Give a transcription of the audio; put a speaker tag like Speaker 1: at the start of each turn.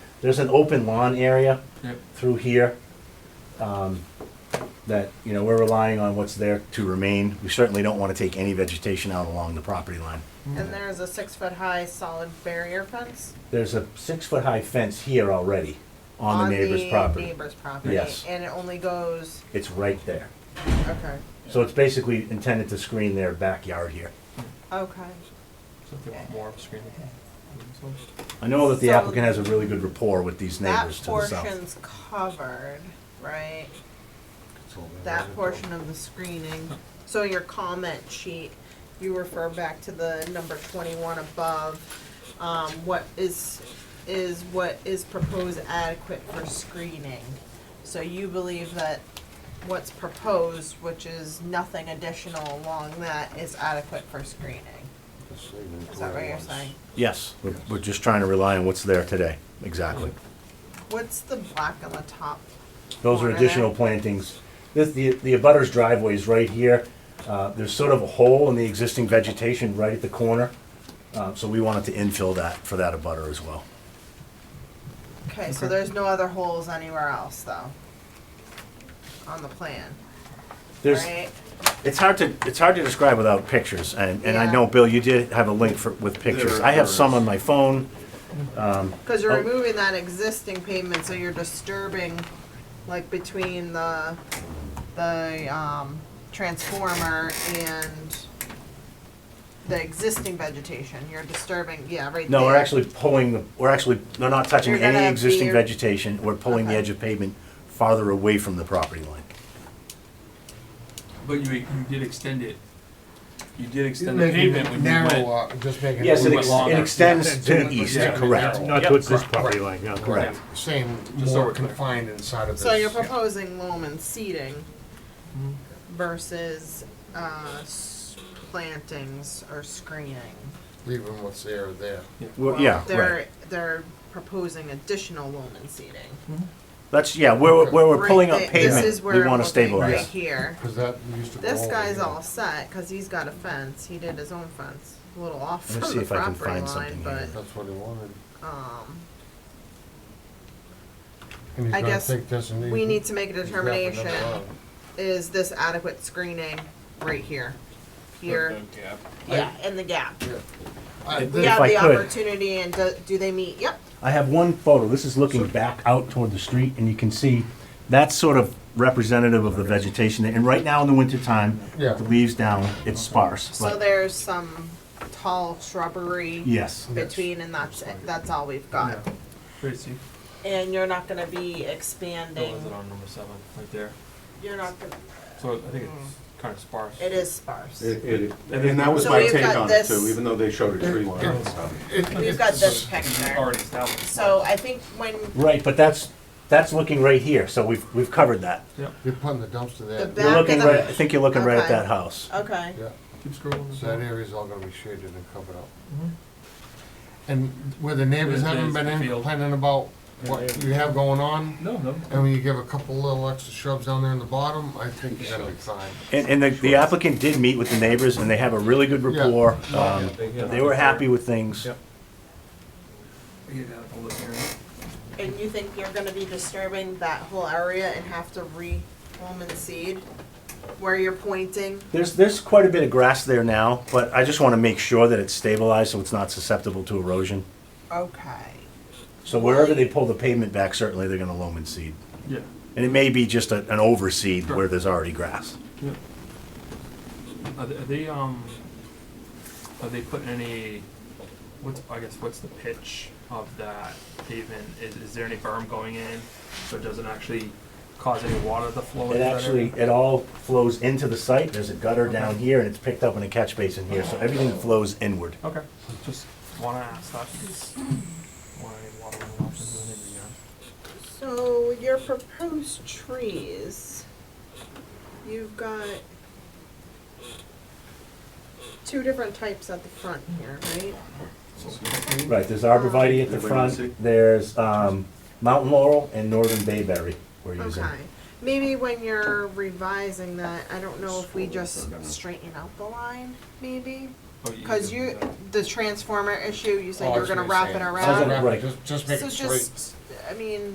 Speaker 1: there's an open lawn area
Speaker 2: Yep.
Speaker 1: through here um, that, you know, we're relying on what's there to remain. We certainly don't want to take any vegetation out along the property line.
Speaker 3: And there's a six-foot-high solid barrier fence?
Speaker 1: There's a six-foot-high fence here already on the neighbor's property.
Speaker 3: neighbor's property.
Speaker 1: Yes.
Speaker 3: And it only goes,
Speaker 1: It's right there.
Speaker 3: okay,
Speaker 1: So it's basically intended to screen their backyard here.
Speaker 3: okay.
Speaker 2: So if they want more of a screen, they can.
Speaker 1: I know that the
Speaker 3: So-
Speaker 1: applicant has a really good rapport with these
Speaker 3: That
Speaker 1: neighbors to the south.
Speaker 3: portion's covered, right? That portion of the screening. So your comment sheet, you refer back to the number twenty-one above. Um, what is, is what is proposed adequate for screening? So you believe that what's proposed, which is nothing additional along that, is adequate for screening? Is that what you're saying?
Speaker 1: Yes, we're, we're just trying to rely on what's there today, exactly.
Speaker 3: What's the black on the top?
Speaker 1: Those are
Speaker 3: corner
Speaker 1: additional
Speaker 3: there?
Speaker 1: plantings. This, the, the abutter's driveway is right here. Uh, there's sort of a hole in the existing vegetation right at the corner. Uh, so we wanted to infill that for that abutter as well.
Speaker 3: Okay, so there's no other holes anywhere else though? On the plan,
Speaker 1: There's,
Speaker 3: right?
Speaker 1: it's hard to, it's hard to describe without pictures, and, and I
Speaker 3: Yeah.
Speaker 1: know, Bill, you did have a link for, with pictures.
Speaker 4: There-
Speaker 1: I have
Speaker 4: there
Speaker 1: some
Speaker 4: is.
Speaker 1: on my phone.
Speaker 3: Cause you're
Speaker 1: Oh.
Speaker 3: removing that existing pavement, so you're disturbing, like between the, the, um, transformer and the existing vegetation, you're disturbing, yeah, right there.
Speaker 1: No, we're actually pulling, the. we're actually, they're not touching
Speaker 3: You're gonna
Speaker 1: any
Speaker 3: have
Speaker 1: existing
Speaker 3: the-
Speaker 1: vegetation. We're pulling the
Speaker 3: Okay.
Speaker 1: edge of pavement farther away from the property line.
Speaker 2: But you, you did extend it, you did extend the
Speaker 5: Making
Speaker 2: pavement
Speaker 5: it
Speaker 2: when you went.
Speaker 5: narrower, just making
Speaker 1: Yes,
Speaker 5: it
Speaker 1: it
Speaker 2: We went
Speaker 1: ex- it
Speaker 2: longer.
Speaker 1: extends to
Speaker 5: Yeah.
Speaker 1: the east,
Speaker 2: Yeah.
Speaker 1: correct.
Speaker 6: Not towards this property line, no,
Speaker 1: Correct.
Speaker 5: same,
Speaker 2: Just so
Speaker 5: more
Speaker 2: we're clear.
Speaker 5: confined inside of this.
Speaker 3: So you're proposing loam and seeding
Speaker 1: Mm-hmm.
Speaker 3: versus, uh, s- plantings or screening?
Speaker 5: Leaving what's there there.
Speaker 1: Well,
Speaker 3: Well,
Speaker 1: yeah,
Speaker 3: They're,
Speaker 1: right.
Speaker 3: they're proposing additional loam and seeding.
Speaker 1: That's, yeah, where, where we're
Speaker 3: Right
Speaker 1: pulling up
Speaker 3: thi- This
Speaker 1: pavement,
Speaker 3: is
Speaker 1: we
Speaker 3: where I'm
Speaker 1: want to
Speaker 3: looking right
Speaker 1: stabilize.
Speaker 3: here.
Speaker 5: Because that used to.
Speaker 3: This
Speaker 5: go
Speaker 3: guy's
Speaker 5: over
Speaker 3: all set because he's got a fence. He did his own fence, a little off
Speaker 1: Let me
Speaker 3: from
Speaker 1: see
Speaker 3: the
Speaker 1: if I can
Speaker 3: property
Speaker 1: find
Speaker 3: line,
Speaker 1: something
Speaker 3: but
Speaker 1: here.
Speaker 5: here. That's what he wanted.
Speaker 3: um,
Speaker 5: And he's
Speaker 3: I
Speaker 5: gonna
Speaker 3: guess
Speaker 5: take this and.
Speaker 3: we
Speaker 5: he's-
Speaker 3: need to make a
Speaker 5: he's wrapping it
Speaker 3: determination.
Speaker 5: around.
Speaker 3: Is this adequate screening right here? Here, yeah, in the gap.
Speaker 5: I-
Speaker 3: We
Speaker 5: Uh, this-
Speaker 1: Yeah.
Speaker 3: have
Speaker 1: I
Speaker 3: the
Speaker 1: could-
Speaker 3: opportunity, and do, do they meet? Yep.
Speaker 1: I have one photo, this is looking back out toward the street, and you can see, that's sort of representative of the vegetation. And right now in the wintertime,
Speaker 5: Yeah.
Speaker 1: the leaves down, it's sparse,
Speaker 3: So
Speaker 1: but,
Speaker 3: there's some tall shrubbery
Speaker 1: yes.
Speaker 3: between, and that's it. That's all we've got.
Speaker 5: Yeah.
Speaker 2: Wait, see,
Speaker 3: And you're not going to be
Speaker 2: that
Speaker 3: expanding.
Speaker 2: was it on number seven, right there.
Speaker 3: You're not going. to
Speaker 2: So I think it's kind of sparse.
Speaker 3: Mm. It is sparse.
Speaker 7: It- it-
Speaker 2: And then
Speaker 7: And that was
Speaker 3: So
Speaker 7: my
Speaker 3: we've
Speaker 7: take
Speaker 3: got
Speaker 7: on it
Speaker 3: this-
Speaker 7: too, even though they showed a tree line and stuff.
Speaker 5: It-
Speaker 3: We've
Speaker 5: it's-
Speaker 3: got this
Speaker 2: It's
Speaker 3: picture.
Speaker 2: already established.
Speaker 3: So I think when
Speaker 1: Right, but that's, that's looking right here, so we've, we've covered that.
Speaker 5: You're putting the dumpster there.
Speaker 3: The
Speaker 1: You're
Speaker 3: Back
Speaker 1: looking
Speaker 3: of the-
Speaker 1: right, I think you're looking right at
Speaker 3: Okay.
Speaker 1: that house.
Speaker 3: okay,
Speaker 5: Yeah,
Speaker 2: Keep scrolling.
Speaker 5: so that area's all gonna be shaded and covered up. And where the neighbors
Speaker 2: There's- there's
Speaker 5: haven't been
Speaker 2: the
Speaker 5: in
Speaker 2: field.
Speaker 5: complaining about what you have going on,
Speaker 2: No, no.
Speaker 5: and when you give a couple little extra shrubs down there in the bottom, I think you're gonna be fine.
Speaker 1: And, and the, the applicant did meet with the neighbors, and they have a really good
Speaker 5: Yeah.
Speaker 1: rapport. Um,
Speaker 7: Yeah, they- yeah.
Speaker 1: They were happy with things.
Speaker 7: Yep.
Speaker 2: Get it out of the list area.
Speaker 3: and you think you're gonna be disturbing that whole area and have to re-home and seed where you're pointing?
Speaker 1: There's, there's quite a bit of grass there now, but I just want to make sure that it's stabilized so it's not susceptible to erosion.
Speaker 3: Okay.
Speaker 1: So wherever they pull the pavement back, certainly they're gonna loam and seed.
Speaker 2: Yeah,
Speaker 1: And it may be just a, an overseed where there's already grass.
Speaker 2: yeah. Are they, are they, um, are they putting any, what's, I guess, what's the pitch of that pavement? Is, is there any berm going in, so it doesn't actually cause any water to flow into
Speaker 1: It
Speaker 2: that area?
Speaker 1: actually, it all flows into the site. There's a gutter down here and it's picked up in a catch basin here, so everything flows inward.
Speaker 2: Okay, just wanna ask that, because wanna water runoff into an every yard.
Speaker 3: So your proposed trees, you've got two different types at the front here, right?
Speaker 1: Right, there's arborvitae at the front, there's, um, mountain laurel and northern bayberry we're using.
Speaker 3: Okay. Maybe when you're revising that, I don't know if we just straighten out the line, maybe?
Speaker 2: Oh, you-
Speaker 3: Cause you, the transformer issue, you
Speaker 5: Oh,
Speaker 3: said
Speaker 5: I
Speaker 3: you were
Speaker 5: was
Speaker 3: gonna wrap
Speaker 5: say,
Speaker 3: it
Speaker 5: just
Speaker 3: around.
Speaker 5: wrap it,
Speaker 1: Right.
Speaker 5: Just, just make
Speaker 3: So
Speaker 5: it straight.
Speaker 3: just, I mean.